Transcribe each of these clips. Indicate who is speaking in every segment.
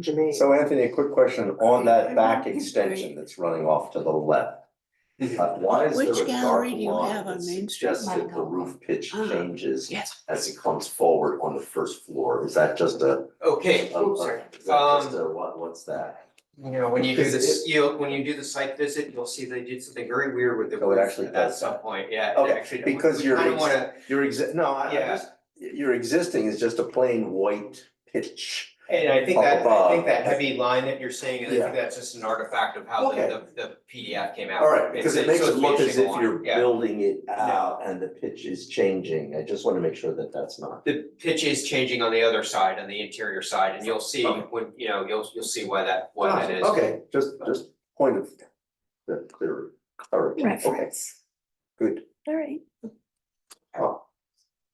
Speaker 1: Jermaine.
Speaker 2: So Anthony, a quick question on that back extension that's running off to the left. Uh, Why is there
Speaker 3: Which
Speaker 2: a dark
Speaker 3: gallery do you
Speaker 2: line
Speaker 3: have on
Speaker 2: that
Speaker 3: Main Street?
Speaker 2: suggests that the roof pitch
Speaker 3: Ah,
Speaker 2: changes
Speaker 3: Yes.
Speaker 2: as it comes forward on the first floor? Is that just a,
Speaker 4: Okay,
Speaker 2: a- a-
Speaker 1: Oops, sorry.
Speaker 2: is that
Speaker 4: Um,
Speaker 2: just a, what, what's that?
Speaker 4: you know, when you do
Speaker 2: Is
Speaker 4: this, you, when you do the site visit, you'll see they did something very weird with the
Speaker 2: Oh, it
Speaker 4: roof
Speaker 2: actually
Speaker 4: at
Speaker 2: does
Speaker 4: some
Speaker 2: that.
Speaker 4: point, yeah. it
Speaker 2: Okay,
Speaker 4: actually-
Speaker 2: because
Speaker 4: we
Speaker 2: you're
Speaker 4: Kinda
Speaker 2: ex-
Speaker 4: wanna,
Speaker 2: Your exi- no, I, I
Speaker 4: Yeah.
Speaker 2: just, your existing is just a plain white pitch.
Speaker 4: and I think
Speaker 2: Up
Speaker 4: that, I
Speaker 2: above.
Speaker 4: think that heavy line that you're seeing, I
Speaker 2: Yeah.
Speaker 4: think that's just an artifact of how
Speaker 2: Okay.
Speaker 4: the, the, the PDF came out.
Speaker 2: All right, because it makes it look as if
Speaker 4: shows me a
Speaker 2: you're
Speaker 4: shingle line, yeah.
Speaker 2: building it out and the pitch is changing. I just want to make sure that that's not.
Speaker 4: The pitch is changing on the other side, on the interior side, and you'll see
Speaker 2: Okay.
Speaker 4: when, you know, you'll, you'll see why that, why
Speaker 2: Ah,
Speaker 4: that is.
Speaker 2: Okay, just, just point of the clear, clarity. Okay,
Speaker 3: Reference.
Speaker 2: good. Ah,
Speaker 3: All right.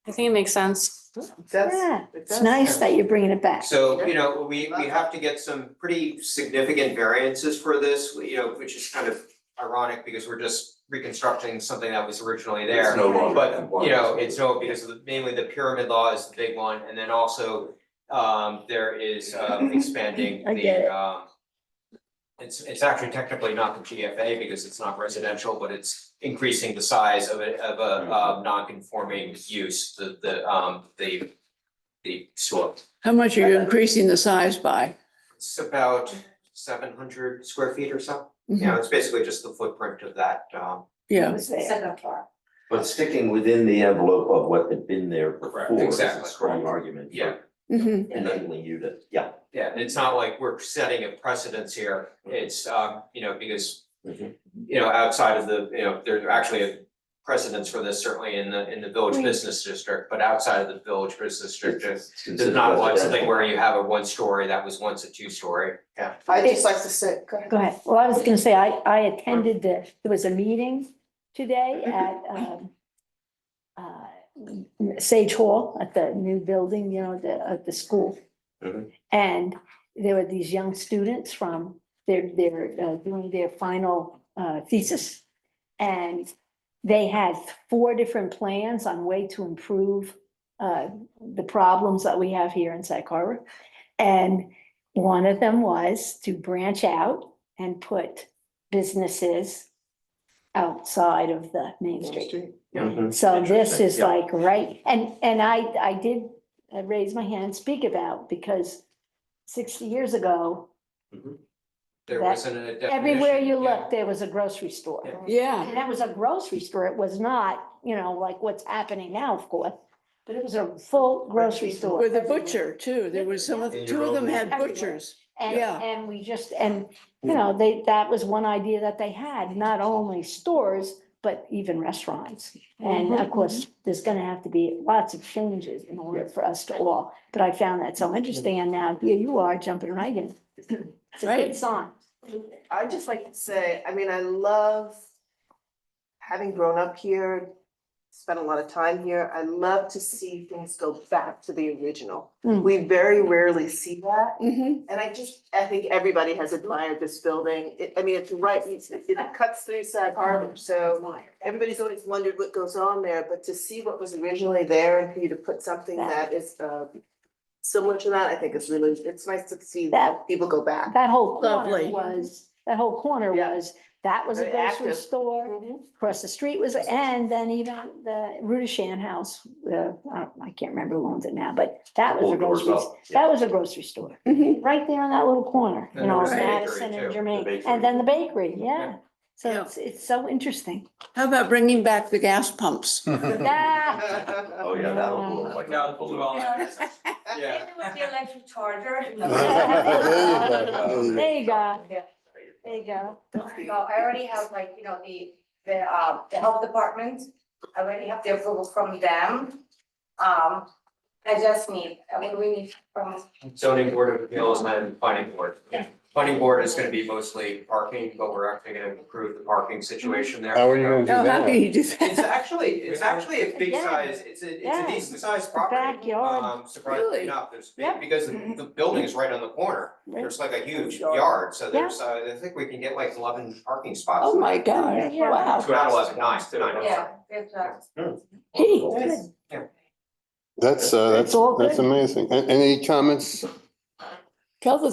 Speaker 5: I think it makes sense.
Speaker 3: Yeah,
Speaker 1: it
Speaker 3: it's
Speaker 1: does
Speaker 3: nice
Speaker 1: have-
Speaker 3: that you're bringing it back.
Speaker 4: So, you know, we, we have to get some pretty significant variances for this, you know, which is kind of ironic because we're just reconstructing something that was originally
Speaker 2: It's
Speaker 4: there.
Speaker 2: no longer
Speaker 4: But,
Speaker 2: than one.
Speaker 4: you know, it's no, because of the- mainly the pyramid law is the big one, and then also, um, there is, um, expanding
Speaker 3: I get it.
Speaker 4: the, um, it's, it's actually technically not the GFA because it's not residential, but it's increasing the size of a, of a, um, non-conforming use, the, the, um, the, the sort.
Speaker 6: How much are you increasing the size by?
Speaker 4: It's about seven hundred square feet or so. You
Speaker 3: Mm-hmm.
Speaker 4: know, it's basically just the footprint of that, um,
Speaker 6: Yeah.
Speaker 3: It was there.
Speaker 2: But sticking within the envelope of what had been there
Speaker 4: Correct,
Speaker 2: before is a
Speaker 4: exactly.
Speaker 2: strong argument
Speaker 4: Yeah.
Speaker 2: for
Speaker 3: Mm-hmm.
Speaker 6: Mhm.
Speaker 2: enabling you to, yeah.
Speaker 4: yeah, and it's not like we're setting a precedence here. It's, um, you know, because,
Speaker 2: Mhm.
Speaker 4: you know, outside of the, you know, there's actually a precedence for this certainly in the, in the village
Speaker 3: Right.
Speaker 4: business district, but outside of the village business district, it's
Speaker 2: It's
Speaker 4: there's
Speaker 2: considered
Speaker 4: not like
Speaker 2: residential.
Speaker 4: something where you have a one story that was once a two story, yeah.
Speaker 1: I'd just like to say, go ahead.
Speaker 3: Go ahead. Well, I was gonna say, I, I attended the, there was a meeting today at, um, uh, Sage Hall at the new building, you know, the, at the school.
Speaker 2: Mhm.
Speaker 3: And there were these young students from, they're, they're uh, doing their final, uh, thesis. And they had four different plans on way to improve, uh, the problems that we have here in Sag Harbor. And one of them was to branch out and put businesses outside of the main street.
Speaker 2: Mhm.
Speaker 3: So this
Speaker 2: Interesting,
Speaker 3: is
Speaker 2: yeah.
Speaker 3: like, right, and, and I, I did uh, raise my hand, and speak about, because sixty years ago,
Speaker 4: There
Speaker 3: That-
Speaker 4: wasn't a definition.
Speaker 3: everywhere you
Speaker 4: yeah.
Speaker 3: looked, there was a grocery store.
Speaker 4: Yeah.
Speaker 6: Yeah,
Speaker 3: And that was a grocery store. It was not, you know, like what's happening now, of course, but it was a full grocery store.
Speaker 6: with a butcher too. There was some of,
Speaker 4: Yeah.
Speaker 6: two of them had
Speaker 3: Everywhere.
Speaker 6: butchers.
Speaker 3: And,
Speaker 6: Yeah.
Speaker 3: and we just, and, you know, they, that was one idea that they had, not only stores, but even restaurants. And
Speaker 6: Mm-hmm.
Speaker 3: of course, there's gonna have to be lots of changes in order for us to all, but I found that so interesting, and now here you are jumping right in. It's a good
Speaker 6: Right.
Speaker 3: sign.
Speaker 1: I'd just like to say, I mean, I love having grown up here, spent a lot of time here. I love to see things go back to the original.
Speaker 3: Mm.
Speaker 1: We very rarely see that.
Speaker 3: mm-hmm,
Speaker 6: Mhm.
Speaker 1: And I just, I think everybody has admired this building. It, I mean, it's right, it's- it cuts through Sag Harbor, so everybody's always wondered what goes on there, but to see what was originally there and for you to put something that is, uh, similar to that, I think is really, it's nice to see that
Speaker 3: That-
Speaker 1: people go back.
Speaker 3: That whole corner
Speaker 6: Lovely.
Speaker 3: was, that whole corner
Speaker 1: Yeah.
Speaker 3: was, that was a
Speaker 1: Very
Speaker 3: grocery
Speaker 1: active.
Speaker 6: Mm-hmm.
Speaker 3: store. across the street was, and then even the Rudishan House, uh, I don't- I can't remember who owns it now, but that was a
Speaker 2: Old doors
Speaker 3: grocery,
Speaker 2: up,
Speaker 3: s-
Speaker 2: yeah.
Speaker 3: that was a grocery store.
Speaker 6: Mhm.
Speaker 3: Right there in that little corner, you
Speaker 4: And
Speaker 3: know,
Speaker 4: there was a bakery
Speaker 3: Madison and
Speaker 4: too, the
Speaker 3: Germaine,
Speaker 2: bakery.
Speaker 3: and then the bakery, yeah.
Speaker 4: Yeah.
Speaker 3: So
Speaker 6: Yeah.
Speaker 3: it's, it's so interesting.
Speaker 6: How about bringing back the gas pumps?
Speaker 3: Ah,
Speaker 2: Oh, yeah, that'll blow like. a
Speaker 4: Now,
Speaker 2: balloon.
Speaker 4: Yeah.
Speaker 7: with the electric charger.
Speaker 2: go.
Speaker 3: There you go,
Speaker 7: Yeah.
Speaker 3: there you go.
Speaker 7: So I already have like, you know, the, the, uh, the health department, I already have the approval from them. Um, I just need, I mean, we need from,
Speaker 4: zoning board of appeals and planning board.
Speaker 7: Yeah.
Speaker 4: Planning board is gonna be mostly parking, but we're actually gonna improve the parking situation there.
Speaker 8: How are you gonna do
Speaker 6: Oh, how can
Speaker 8: that?
Speaker 6: you do
Speaker 4: It's
Speaker 6: that?
Speaker 4: actually, it's actually a big
Speaker 3: Yeah.
Speaker 4: size, it's a, it's
Speaker 3: Yeah.
Speaker 4: a decent sized property.
Speaker 3: backyard.
Speaker 4: Um, surprisingly
Speaker 6: Really?
Speaker 4: enough, there's,
Speaker 3: Yeah.
Speaker 4: big because the the building is right on the corner.
Speaker 3: Right.
Speaker 4: There's like a huge
Speaker 2: Yard.
Speaker 4: yard, so there's, uh, I think we can get like eleven parking spots.
Speaker 6: Oh, my God.
Speaker 3: Yeah.
Speaker 6: Wow.
Speaker 4: So Not eleven, nine, nine.
Speaker 7: yeah, there's a.
Speaker 6: Gee.
Speaker 8: That's, uh, that's,
Speaker 3: It's all
Speaker 8: that's
Speaker 3: good.
Speaker 8: amazing. A- Any comments?
Speaker 6: Tell the